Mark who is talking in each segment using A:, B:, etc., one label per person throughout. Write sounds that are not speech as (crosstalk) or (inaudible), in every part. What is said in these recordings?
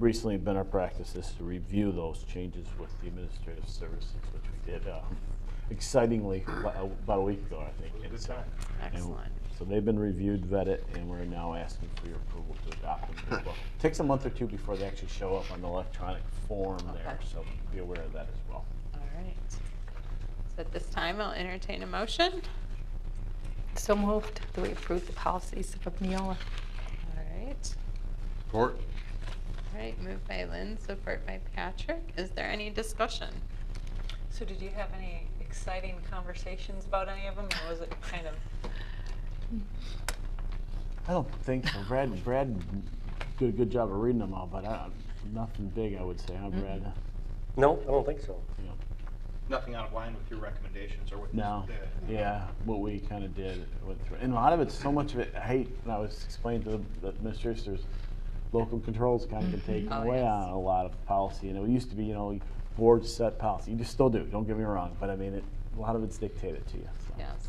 A: recently been our practice is to review those changes with the administrative services, which we did uh, excitingly about about a week ago, I think. and so- and
B: Excellent.
A: So they've been reviewed, vetted, and we're now asking for your approval to adopt them as well. Takes a month or two before they actually show up on the electronic form there,
B: Okay.
A: so be aware of that as well.
B: All right. So at this time, I'll entertain a motion.
C: So moved. Do we approve the policies of Neola?
B: All right.
D: Support?
B: All right, moved by Lynn, support by Patrick. Is there any discussion?
E: So did you have any exciting conversations about any of them, or was it kind of?
A: I don't think so. Brad, Brad did a good job of reading them all, but I, nothing big, I would say, huh, Brad?
B: Mm-hmm.
F: No, I don't think so.
A: You know,
G: nothing out of line with your recommendations or with the.
A: No, yeah, what we kind of did went through, and a lot of it's so much of it. I hate when I was explaining to the, the administrators, local controls kind of can take
B: Oh,
A: away
B: yes.
A: on a lot of policy, and it used to be, you know, boards set policy. You just still do. Don't get me wrong, but I mean, it, a lot of it's dictated to you. So.
B: Yes.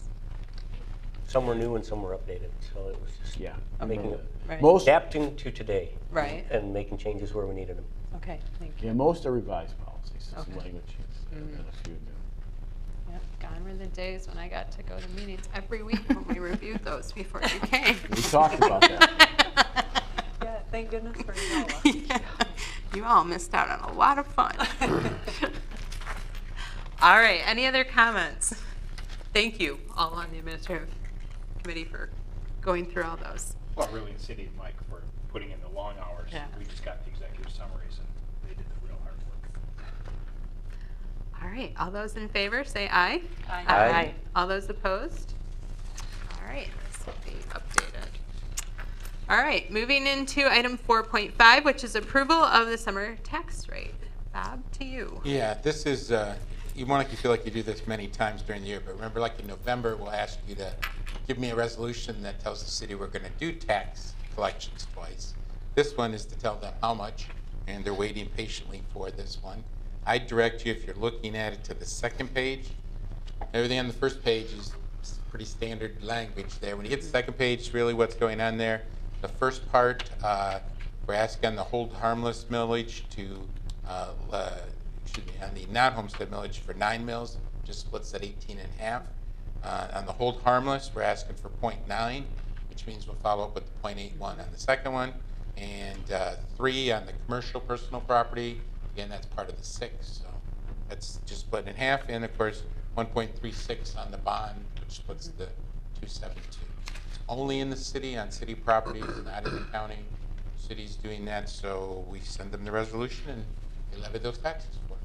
F: Some were new and some were updated, so it was just
A: Yeah.
F: making
A: Okay.
B: Right.
A: Most,
F: adapting to today
B: Right.
F: and making changes where we needed them.
B: Okay, thank you.
A: yeah, most are revised policies. Some
B: Okay. Mm-hmm.
A: language changes and then a few new.
B: Yep, gone were the days when I got to go to meetings every week when we reviewed those before you came.
A: (laughs) We talked about
B: (laughs) that.
E: Yeah, thank goodness for
B: (laughs)
E: Neola.
B: You all missed out on a lot of
E: (laughs)
B: fun. All right, any other comments? Thank you, all on the administrative committee for going through all those.
G: Well, really, the city and Mike for putting in the long hours.
B: Yeah.
G: We just got the executive summaries and they did the real hard work.
B: All right, all those in favor, say aye.
E: Aye.
F: Aye.
B: All those opposed? All right, this will be updated. All right, moving into item 4.5, which is approval of the summer tax rate. Bob, to you.
D: Yeah, this is, uh, you want to feel like you do this many times during the year, but remember, like in November, we'll ask you to give me a resolution that tells the city we're going to do tax collections twice. This one is to tell them how much, and they're waiting patiently for this one. I direct you, if you're looking at it, to the second page. Everything on the first page is s- pretty standard language there. When you get to the second page, really what's going on there. The first part, uh, we're asking the hold harmless millage to, uh, le- excuse me, on the non-homestead millage for nine mills, just splits at 18 and a half. Uh, On the hold harmless, we're asking for .9, which means we'll follow up with the .81 on the second one. And uh, three on the commercial personal property, again, that's part of the six, so that's just split in half, and of course, 1.36 on the bond, which splits the 272. It's Only in the city, on city properties, not in the county. City's doing that, so we send them the resolution and they levy those taxes for us.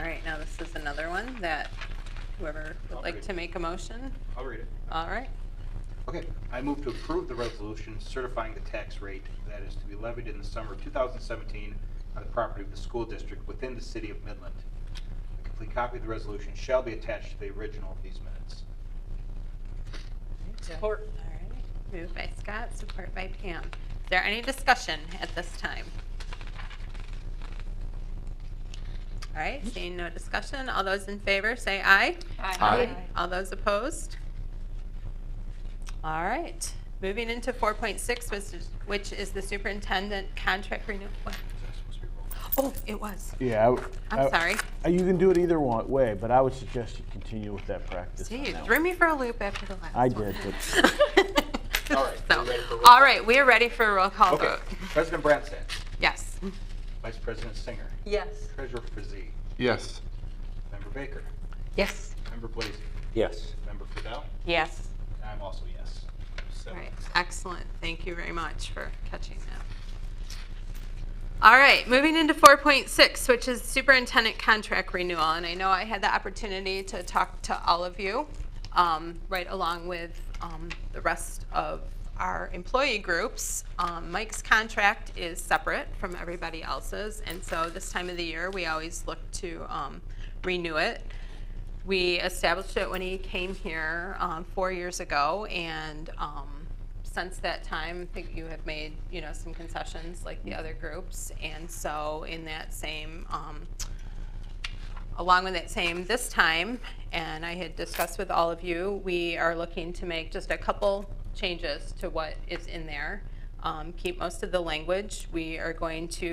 B: All right, now this is another one that whoever would like to make a motion.
G: I'll read it.
B: All right,
G: Okay, I move to approve the resolution certifying the tax rate that is to be levied in the summer of 2017 on the property of the school district within the city of Midland. A complete copy of the resolution shall be attached to the original of these minutes.
E: Support.
B: all right. Moved by Scott, support by Pam. Is there any discussion at this time? All right, seeing no discussion, all those in favor, say aye.
D: Aye.
B: All those opposed? All right, moving into 4.6, which is- which is the superintendent contract renewal. Oh, it was.
A: Yeah, I w- I-
B: I'm sorry.
A: I- You can do it either one way, but I would suggest you continue with that practice. on
B: See, you
A: that
B: threw me for a loop after the last
A: I
B: one.
A: did,
B: (laughs) All
G: right,
B: So,
G: we're ready for roll
B: all
G: call.
B: right, we are ready for a roll call
G: Okay,
B: vote.
G: President Branstad,
B: Yes.
G: Vice President Singer,
E: Yes.
G: Treasurer Frazee,
D: Yes.
G: Member Baker,
C: Yes.
G: Member Blazy,
F: Yes.
G: Member Fidel,
C: Yes.
G: and I'm also yes.
B: All
G: Seven.
B: right, excellent. Thank you very much for catching that. All right, moving into 4.6, which is superintendent contract renewal. And I know I had the opportunity to talk to all of you, um, right along with um, the rest of our employee groups. Um, Mike's contract is separate from everybody else's. And so this time of the year, we always look to um, renew it. We established it when he came here um, four years ago, and um, since that time, I think you have made, you know, some concessions like the other groups. And so in that same, um, along with that same this time, and I had discussed with all of you, we are looking to make just a couple changes to what is in there. um, keep most of the language. We are going to